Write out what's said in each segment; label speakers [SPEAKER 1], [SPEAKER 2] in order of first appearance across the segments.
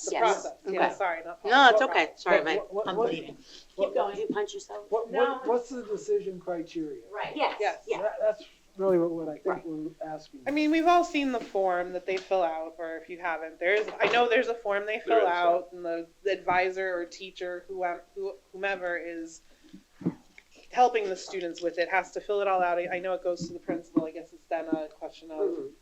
[SPEAKER 1] the
[SPEAKER 2] Yes.
[SPEAKER 1] process, yeah,
[SPEAKER 2] Okay.
[SPEAKER 1] sorry. not-
[SPEAKER 2] No, it's
[SPEAKER 1] what-
[SPEAKER 2] okay. Sorry, Mike.
[SPEAKER 3] What- what-
[SPEAKER 2] I'm
[SPEAKER 3] what-
[SPEAKER 2] bleeding.
[SPEAKER 3] what-
[SPEAKER 4] Keep going, you punch yourself.
[SPEAKER 3] What,
[SPEAKER 1] No.
[SPEAKER 3] what, what's the decision criteria?
[SPEAKER 4] Right.
[SPEAKER 1] Yes.
[SPEAKER 4] Yes, yeah.
[SPEAKER 3] That- That's really what, what I think
[SPEAKER 1] Right.
[SPEAKER 3] we're asking.
[SPEAKER 1] I mean, we've all seen the form that they fill out, or if you haven't, there's, I know there's a form they
[SPEAKER 5] There
[SPEAKER 1] fill
[SPEAKER 5] is, yeah.
[SPEAKER 1] out, and the the advisor or teacher, who who- whomever is helping the students with it, has to fill it all out. I I know it goes to the principal, I guess it's then a question of,
[SPEAKER 4] Mm-hmm.
[SPEAKER 2] Mhm.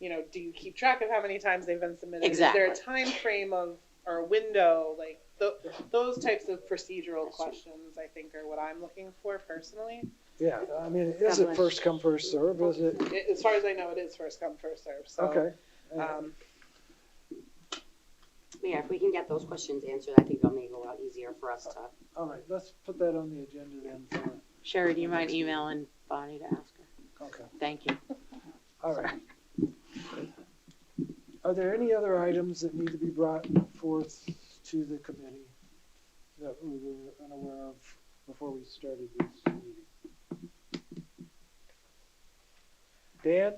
[SPEAKER 1] you know, do you keep track of how many times they've been submitted? Is there a time frame of, or a window, like, tho- those types of procedural questions, I think, are what I'm looking for personally.
[SPEAKER 3] Yeah, I mean, is
[SPEAKER 2] God
[SPEAKER 3] it
[SPEAKER 2] bless.
[SPEAKER 3] first come, first serve? Is it,
[SPEAKER 1] I- As far as I know, it is first come, first served, so.
[SPEAKER 3] okay. Uh,
[SPEAKER 1] um,
[SPEAKER 2] Yeah, if we can get those questions answered, I think it'll make it a lot easier for us to.
[SPEAKER 3] All right, let's put that on the agenda then. for-
[SPEAKER 2] Sherry, do you mind emailing Bonnie to ask her?
[SPEAKER 3] Okay,
[SPEAKER 2] Thank you.
[SPEAKER 3] all right. Are there any other items that need to be brought forth to the committee that we were unaware of before we started this meeting? Dan?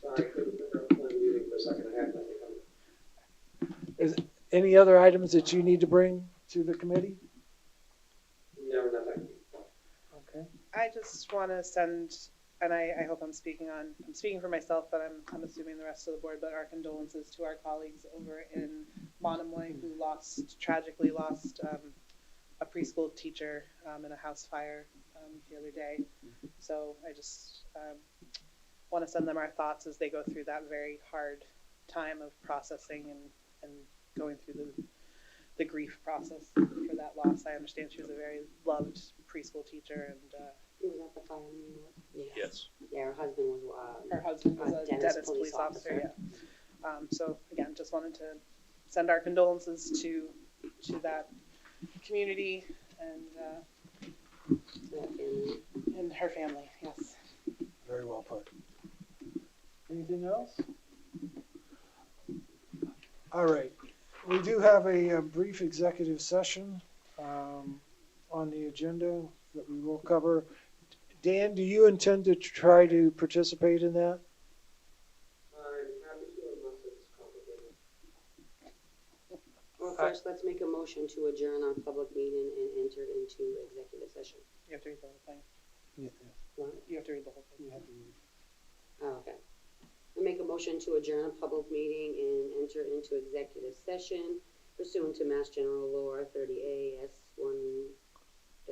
[SPEAKER 6] Sorry, I couldn't figure out my meeting for a second. I had nothing on.
[SPEAKER 3] Any other items that you need to bring to the committee?
[SPEAKER 6] No, nothing.
[SPEAKER 3] Okay.
[SPEAKER 1] I just want to send, and I, I hope I'm speaking on, I'm speaking for myself, but I'm, I'm assuming the rest of the board, but our condolences to our colleagues over in Monomoy who lost, tragically lost um, a preschool teacher um, in a house fire um, the other day. So I just um, want to send them our thoughts as they go through that very hard time of processing and, and going through the, the grief process for that loss. I understand she was a very loved preschool teacher and uh,
[SPEAKER 2] Was that the fire in New York? Yeah.
[SPEAKER 5] Yes.
[SPEAKER 2] Yeah, her husband was, um,
[SPEAKER 1] her husband was
[SPEAKER 2] Uh,
[SPEAKER 1] a
[SPEAKER 2] Dennis
[SPEAKER 1] Dennis
[SPEAKER 2] police
[SPEAKER 1] police officer,
[SPEAKER 2] officer.
[SPEAKER 1] yeah. Um, so again, just wanted to send our condolences to, to that community and, uh,
[SPEAKER 2] that family.
[SPEAKER 1] and her family, yes.
[SPEAKER 3] Very well put. Anything else? All right, we do have a uh, brief executive session um, on the agenda that we will cover. Dan, do you intend to try to participate in that?
[SPEAKER 6] I'm happy to unless it's complicated.
[SPEAKER 2] Well, first, let's make a motion to adjourn our public meeting and enter into executive session.
[SPEAKER 1] You have to read the whole thing.
[SPEAKER 3] Yeah.
[SPEAKER 2] What?
[SPEAKER 1] You have to read the whole thing.
[SPEAKER 2] Oh, okay. I make a motion to adjourn a public meeting and enter into executive session pursuant to Mass General Law thirty A S one,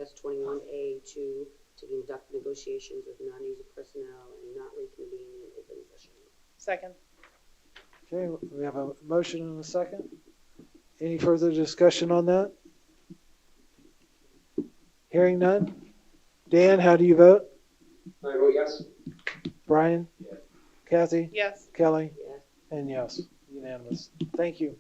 [SPEAKER 2] S twenty-one A two, to conduct negotiations with non-user personnel and not reconvene in open session.
[SPEAKER 1] Second,
[SPEAKER 3] Okay, we have a motion and a second. Any further discussion on that? Hearing none? Dan, how do you vote?
[SPEAKER 6] I vote yes.
[SPEAKER 3] Brian?
[SPEAKER 6] Yes.
[SPEAKER 3] Kathy?
[SPEAKER 1] yes.
[SPEAKER 3] Kelly?
[SPEAKER 2] Yes.
[SPEAKER 3] And yes, unanimous. Thank you.